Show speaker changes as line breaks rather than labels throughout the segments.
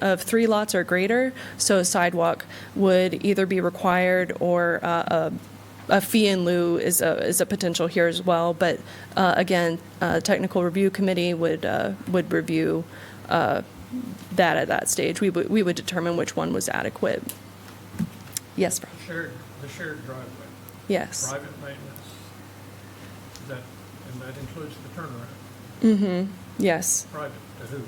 of three lots or greater, so a sidewalk would either be required or uh, a a fee in lieu is a, is a potential here as well. But uh, again, uh, technical review committee would, uh, would review uh, that at that stage. We would, we would determine which one was adequate. Yes, Rob?
Shared, the shared driveway,
yes.
private maintenance, Is that, and that includes the turnaround,
Yes,
private to who?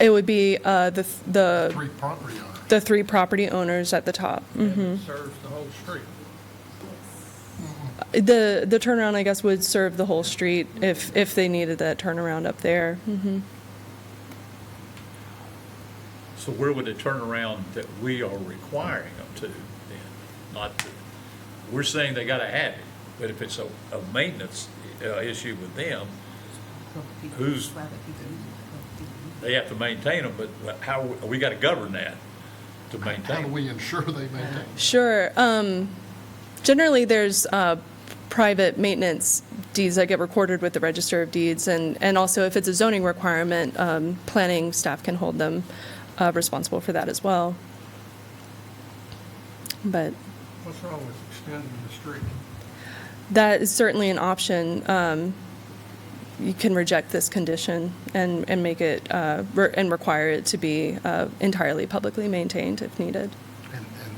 it would be uh, the th- the
Three property owners.
the three property owners at the top. Mm.
And it serves the whole street.
The the turnaround, I guess, would serve the whole street if if they needed that turnaround up there. hmm
So where would it turn around that we are requiring them to then? Not, to- we're saying they gotta have it, but if it's a, a maintenance uh, issue with them, Who's- they have to maintain them, but how, we gotta govern that to
How do
maintain.
we ensure they maintain?
Sure. Um, generally, there's uh, private maintenance deeds that get recorded with the Register of Deeds, and and also if it's a zoning requirement, um, planning staff can hold them uh, responsible for that as well. But
What's wrong with extending the street?
That is certainly an option. Um, You can reject this condition and, and make it, uh, re- and require it to be uh, entirely publicly maintained if needed.
And, and,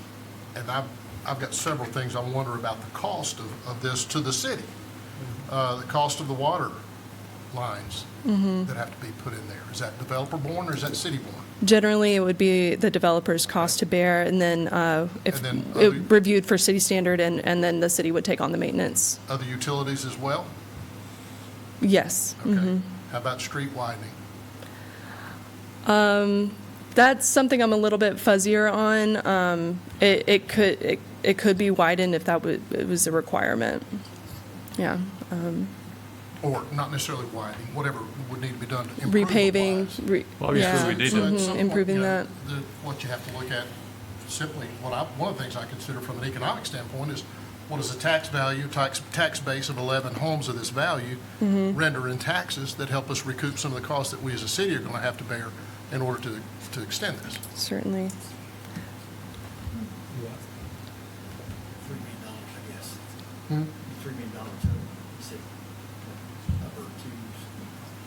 and I've, I've got several things I wonder about the cost of, of this to the city. Uh, the cost of the water lines that have to be put in there. Is that developer borne or is that city borne?
Generally, it would be the developer's cost to bear, and then uh, if,
And then
it
other-
reviewed for city standard, and, and then the city would take on the maintenance.
Other utilities as well?
Yes.
Okay. How about street widening?
That's something I'm a little bit fuzzier on. Um, It, it could, it, it could be widened if that wa- it was a requirement. Yeah.
Or not necessarily widening, whatever would need to be done to improve the
repaving.
lines.
re- yeah,
Obviously, we need
So at
to,
mhm,
some point,
Improving
you know,
that.
Uh, the- What you have to look at, simply, what I, one of the things I consider from an economic standpoint is, what is the tax value, tax, tax base of 11 homes of this value render in taxes that help us recoup some of the costs that we as a city are going to have to bear in order to, to extend this?
Certainly.
Three million dollars, I guess. Three million dollars, I would say, upper twos,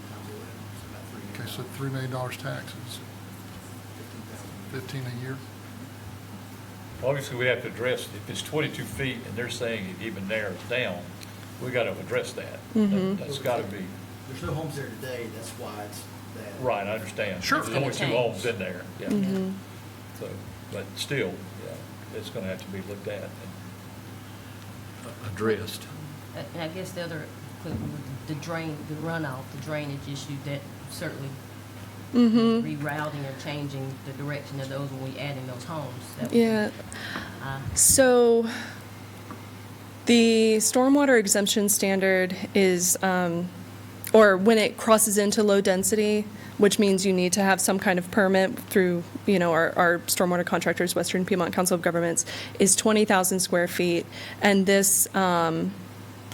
times eleven, it's about three million.
Okay, so $3 million taxes,
Fifteen thousand.
15 a year?
obviously, we have to address, if it's twenty-two feet and they're saying it even narrows down, we gotta address that.
Mm-hmm.
That- That's gotta be,
There's no homes there today, that's why it's that.
right, I understand.
Sure.
There's Twenty-two homes in there, yeah.
Mm-hmm.
Mm-hmm,
So, but still, yeah, it's gonna have to be looked at and addressed.
I- I guess the other, the drain, the runoff, the drainage issue, that certainly
Mm-hmm.
rerouting or changing the direction of those when we add in those homes. that would be,
Yeah.
uh,
So the stormwater exemption standard is, um, or when it crosses into low density, which means you need to have some kind of permit through, you know, our, our stormwater contractors, Western Piedmont Council of Governments, is 20,000 square feet. And this, um,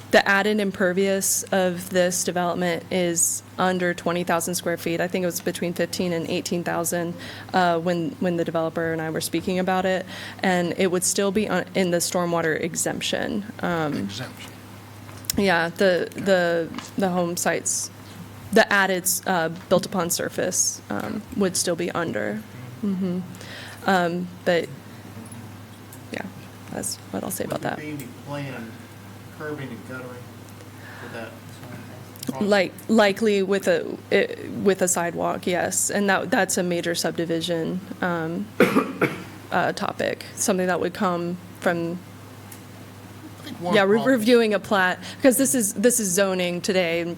the added impervious of this development is under 20,000 square feet. I think it was between 15 and 18,000 uh, when, when the developer and I were speaking about it. And it would still be on- in the stormwater exemption. Um,
Exemption.
Yeah, the, the, the home sites, the added uh, built-upon surface um, would still be under. Mhm. Um, But, yeah, that's what I'll say about that.
Would there be any planned curbing and guttering for that? project?
Like, likely with a, it- with a sidewalk, yes. And that, that's a major subdivision um, uh, topic, something that would come from,
I think one
yeah,
of the
re-
problems-
reviewing a plat, because this is, this is zoning today,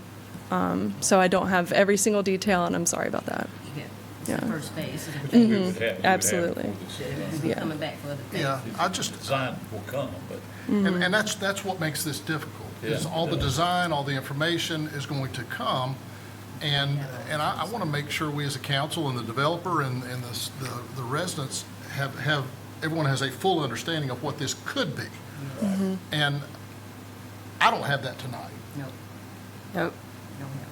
um, so I don't have every single detail, and I'm sorry about that.
yeah, it's
Yeah.
the first phase. so
Which
that
we would have- we would have
absolutely.
before this, uh,
We'll be
Yeah.
coming back for other things.
Yeah, I just,
Design will come, but
And, and that's, that's what makes this difficult, is
Mm-hmm. Yeah.
all the design, all the information is going to come. And, and I, I want to make sure we as a council and the developer and, and the, s- the- the residents have, have, everyone has a full understanding of what this could be.
Mm-hmm.
And I don't have that tonight.
No,
Nope.
no, no.